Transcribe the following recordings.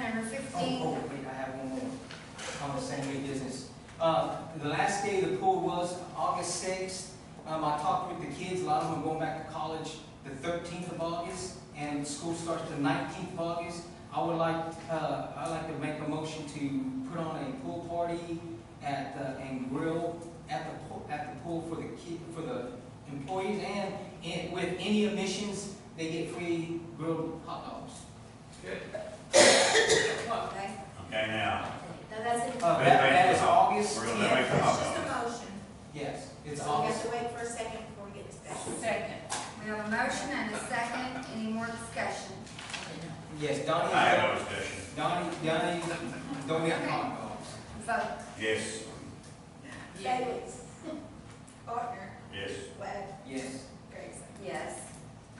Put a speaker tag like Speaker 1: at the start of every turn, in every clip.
Speaker 1: Oh,
Speaker 2: sixteen,
Speaker 1: oh, wait, I have one more. On the same way business. Uh, the last day of the pool was August sixth. Um, I talked with the kids, a lot of them are going back to college the thirteenth of August, and school starts the nineteenth of August. I would like, uh, I'd like to make a motion to put on a pool party at, uh, and grill at the, po- at the pool for the kid, for the employees, and, and with any admissions, they get free grilled hot dogs.
Speaker 3: Good.
Speaker 2: okay?
Speaker 4: Okay, now,
Speaker 2: Now, that's it.
Speaker 1: Uh, that, that is August
Speaker 4: we're gonna make a
Speaker 1: tenth.
Speaker 4: hot
Speaker 5: Just a
Speaker 4: dog.
Speaker 5: motion.
Speaker 1: Yes, it's
Speaker 5: So we
Speaker 1: August
Speaker 5: have to wait for a second before we get discussion.
Speaker 6: Second.
Speaker 2: We have a motion and a second, any more discussion?
Speaker 1: Yes,
Speaker 4: I
Speaker 1: Donnie,
Speaker 4: have no discussion.
Speaker 1: Donnie, Donnie, don't get hot dogs.
Speaker 2: Vote.
Speaker 4: Yes,
Speaker 5: Davis. Partner.
Speaker 4: yes.
Speaker 5: Webb.
Speaker 1: Yes.
Speaker 5: Grayson.
Speaker 2: Yes.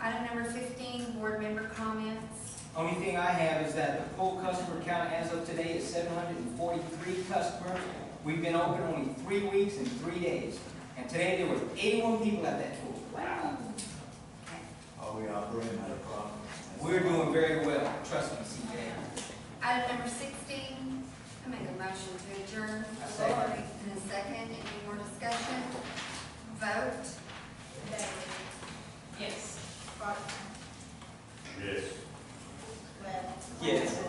Speaker 2: Item number fifteen, board member comments.
Speaker 1: Only thing I have is that the full customer count as of today is seven hundred and forty-three customers. We've been open only three weeks and three days, and today there was eighty-one people at that pool.
Speaker 3: Are we operating at a problem?
Speaker 1: We're doing very well, trust me, CJ.
Speaker 2: Item number sixteen, I make a motion to adjourn.
Speaker 1: I second.
Speaker 2: In a second, any more discussion? Vote.
Speaker 5: Davis.
Speaker 6: Yes.
Speaker 5: Partner.
Speaker 4: Yes.
Speaker 5: Webb.
Speaker 1: Yes.